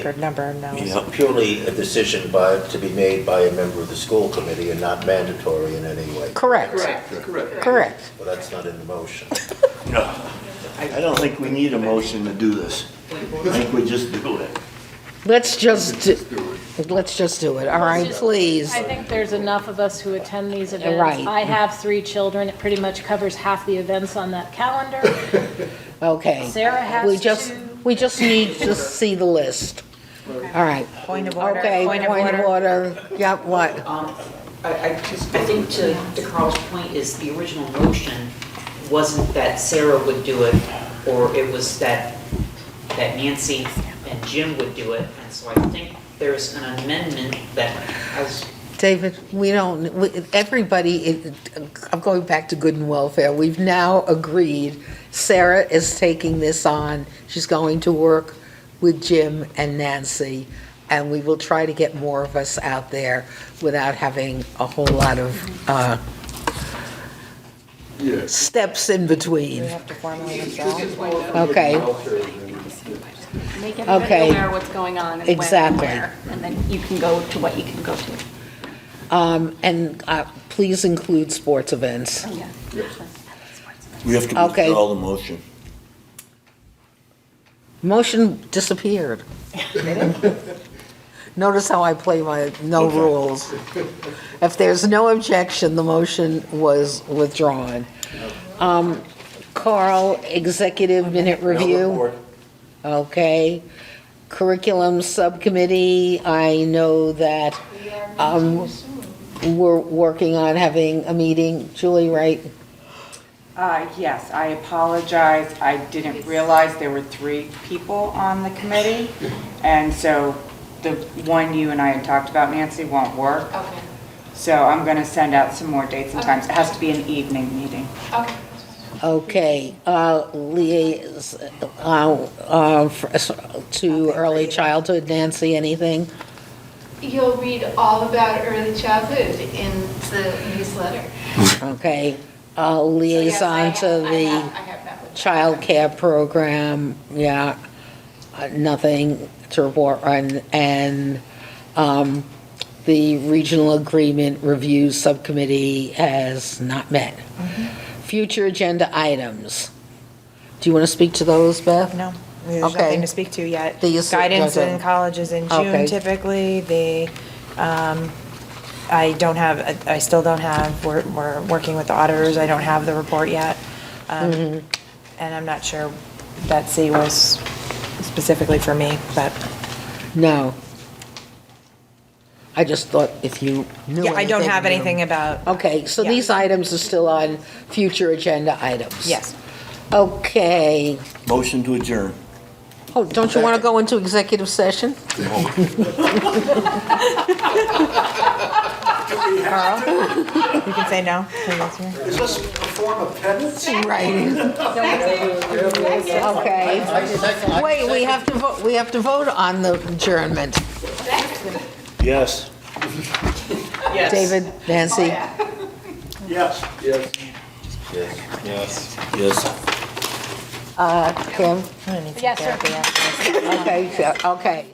record number of no's. It's purely a decision by, to be made by a member of the school committee and not mandatory in any way. Correct, Correct, correct. correct. Well, that's not in the motion. I don't think we need a motion to do this. I think we just do it. Let's just, let's just do it, all right, please. I think there's enough of us who attend these events. Right. I have three children. It pretty much covers half the events on that calendar. Okay. Sarah has We just, two. we just need to see the list. All right. Point of order. Okay, point of order. Yep, what? Um, I, I just, I think to, to Carl's point is the original motion wasn't that Sarah would do it, or it was that, that Nancy and Jim would do it. And so I think there's an amendment that has, David, we don't, we- everybody, it- I'm going back to good and welfare, we've now agreed, Sarah is taking this on, she's going to work with Jim and Nancy, and we will try to get more of us out there without having a whole lot of uh, Yes. steps in between. have to formally withdraw. Okay. Make everybody Okay. aware of what's going on and when and Exactly. where. And then you can go to what you can go to. Um, And uh, please include sports events. Oh, Yeah. We have to Okay. withdraw the motion. Motion disappeared. Notice how I play my no rules. If there's no objection, the motion was withdrawn. Um, Carl, executive minute No review, report. okay. Curriculum Subcommittee, I know that um, we're working on having a meeting. Julie, right? Uh, yes, I apologize. I didn't realize there were three people on the committee. And so the one you and I had talked about, Nancy, won't work. Okay, So I'm going to send out some more dates and times. It has to be an evening meeting. okay. Okay, uh, liais, uh, uh, for- to early childhood, Nancy, anything? You'll read all about early childhood in the newsletter. Okay, uh, So yes, I liaison have- to I have- I the have that with- childcare program, yeah, uh, nothing to report on, and, um, the regional agreement review subcommittee has not met. Future agenda items. Do you want to speak to those, Beth? No, there's Okay. nothing to speak to yet. They used to- Guidance in doesn't- college is in Okay. June typically. The, um, I don't have, I still don't have, we're, we're working with the auditors. I don't have the report yet. Um, Mm-hmm. And I'm not sure Betsy was specifically for me, but, No. I just thought if you knew yeah, I don't have you- anything about, Okay, so Yeah. these items are still on future agenda items? yes. Okay. Motion to adjourn. Oh, don't you want to go into executive session? Carl? You can say no. Is this a form of penance? Right. Okay. I sec- I Wait, we have to vote, we have to vote on the adjournment. Yes. Yes. David, Oh, Nancy, Yes. Yes. Yes. Yes. Yes. uh, Kim? Yes, sir. Okay, yeah, okay.